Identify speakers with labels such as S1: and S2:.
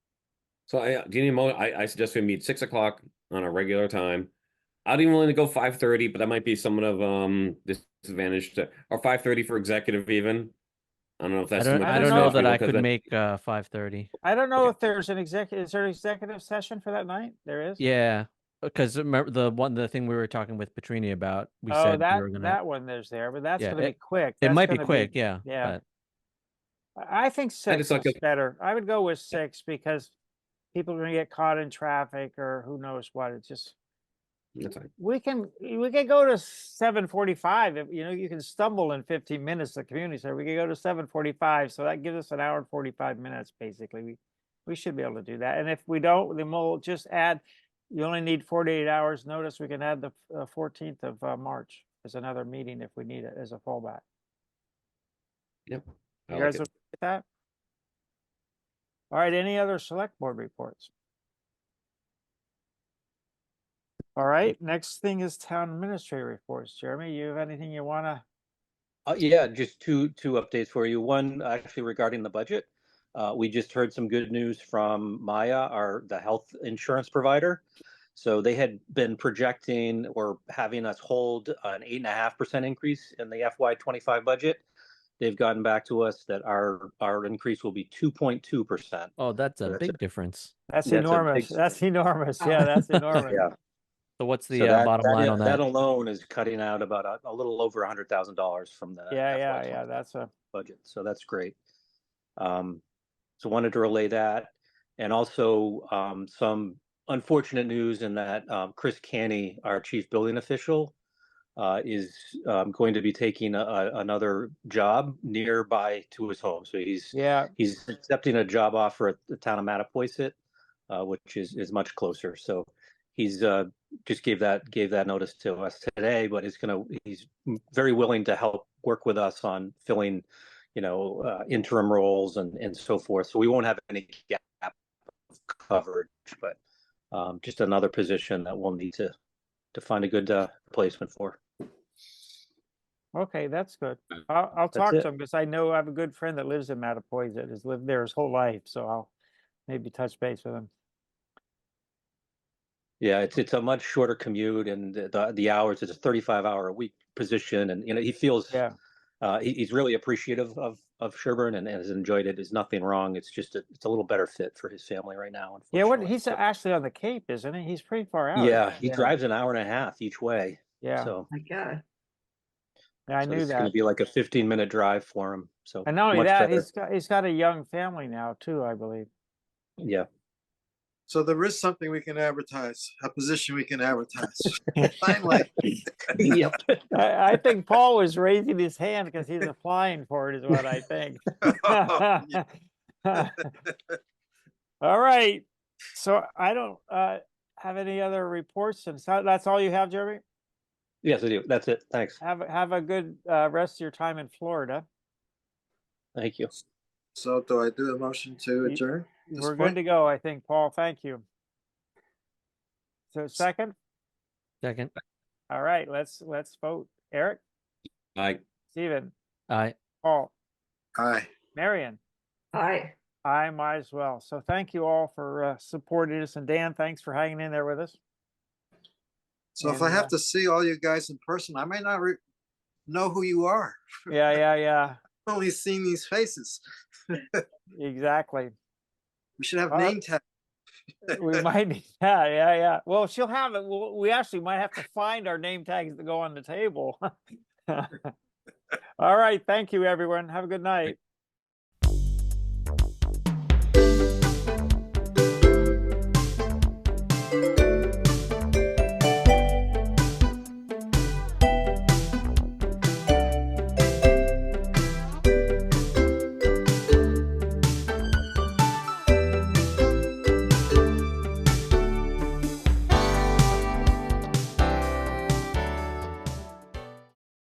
S1: So I, uh, do you need a mo, I, I suggest we meet six o'clock on our regular time. I'd even willing to go five thirty, but that might be somewhat of, um, disadvantage to, or five thirty for executive even. I don't know if
S2: I
S1: that's.
S2: don't,
S1: somewhat
S2: I don't know
S1: disadvantage
S2: that I
S1: because
S2: could
S1: that-
S2: make uh five thirty.
S3: I don't know
S1: Okay.
S3: if there's an executive, is there an executive session for that night? There is?
S2: Yeah, because Uh, remember the one the thing we were talking with Petrini about. We
S3: Oh,
S2: said
S3: that,
S2: we were gonna.
S3: that one there's there, but that's
S2: Yeah,
S3: gonna be
S2: it-
S3: quick.
S2: it
S3: That's
S2: might be
S3: gonna
S2: quick, yeah.
S3: yeah.
S2: but-
S3: I I think six
S1: like
S3: is
S1: it.
S3: better. I would go with six because people are gonna get caught in traffic or who knows what. It's just,
S1: That's fine.
S3: we can, we can go to seven forty-five. If, you know, you can stumble in fifteen minutes, the community center. We could go to seven forty-five, so that gives us an hour and forty-five minutes, basically. We, we should be able to do that. And if we don't, then we'll just add, you only need forty-eight hours notice. We can add the fourteenth of uh, March as another meeting if we need it as a fallback.
S1: I
S3: You
S1: like
S3: guys
S1: it.
S3: okay with that? All right, any other select board reports? All right, next thing is town administrator reports. Jeremy, you have anything you wanna,
S4: Uh, yeah, just two, two updates for you. One, actually regarding the budget. Uh, we just heard some good news from Maya, our, the health insurance provider. So they had been projecting or having us hold an eight and a half percent increase in the FY twenty-five budget. They've gotten back to us that our, our increase will be two point two percent.
S2: Oh, that's a
S4: That's
S2: big difference.
S3: that's
S4: That's a big
S3: enormous, that's enormous, yeah, that's enormous.
S4: Yeah.
S2: So what's the
S4: So
S2: uh,
S4: that-
S2: bottom
S4: that
S2: line
S4: i-
S2: on
S4: That
S2: that?
S4: alone is cutting out about a, a little over a hundred thousand dollars from the.
S3: Yeah,
S4: FY
S3: yeah, yeah,
S4: 25
S3: that's a,
S4: budget, so that's great. Um, so wanted to relay that, and also, um, some unfortunate news in that, um, Chris Canny, our chief building official, uh, is, um, going to be taking a, a- another job nearby to his home, so he's,
S3: yeah,
S4: he's accepting a job offer at the town of Mattapoisett, uh, which is, is much closer, so he's, uh, just gave that, gave that notice to us today, but he's gonna, he's very willing to help work with us on filling, you know, uh, interim roles and, and so forth, so we won't have any gap of coverage, but, um, just another position that we'll need to, to find a good, uh, replacement for.
S3: okay, that's good. I'll, I'll
S4: That's
S3: talk to
S4: it.
S3: him, because I know I have a good friend that lives in Mattapoisett, has lived there his whole life, so I'll maybe touch base with him.
S4: Yeah, it's it's a much shorter commute and the the, the hours. It's a thirty-five hour a week position, and you know he feels
S3: Yeah.
S4: uh, he, he's really appreciative of of Sherburne and, and has enjoyed it. There's nothing wrong. It's just a, it's a little better fit for his family right now.
S3: Yeah, what,
S4: unfortunately,
S3: he's
S4: so-
S3: actually on the Cape, isn't he? He's pretty far out.
S4: yeah, he drives an hour and a half each way.
S3: Yeah,
S4: So,
S5: My God.
S3: yeah, I
S4: so
S3: knew
S4: it's going
S3: that.
S4: to be like a fifteen minute drive for him. So
S3: And not only
S4: much
S3: that,
S4: better.
S3: he's got he's got a young family now too, I believe.
S4: yeah,
S6: So there is something we can advertise, a position we can advertise. Finally,
S4: yep.
S3: I, I think Paul was raising his hand because he's applying for it, is what I think.
S4: Oh,
S3: all right. So I don't uh, have any other reports, and so that's all you have, Jeremy.
S4: Yes, I do. That's it. Thanks.
S3: Have a- have a good uh, rest of your time in Florida.
S4: Thank you.
S6: So do I do a motion to
S3: You-
S6: adjourn? at this
S3: We're
S6: point?
S3: good to go, I think, Paul. Thank you. So second,
S2: Second,
S3: all right. Let's let's vote. Eric,
S1: Like,
S3: Stephen,
S2: I
S3: Paul.
S6: Aye.
S3: Marion,
S5: Hi.
S3: I might as well. So thank you all for uh, supporting us. And Dan, thanks for hanging in there with us.
S6: So if
S3: And,
S6: I
S3: uh,
S6: have to see all you guys in person, I might not re- know who you are.
S3: Yeah, yeah, yeah.
S6: I've Only seen these faces.
S3: Exactly.
S6: We should have
S3: Uh,
S6: name tags.
S3: We might need, yeah, yeah, yeah. Well, she'll have it. We'll, we actually might have to find our name tags that go on the table. all right. Thank you, everyone. Have a good night.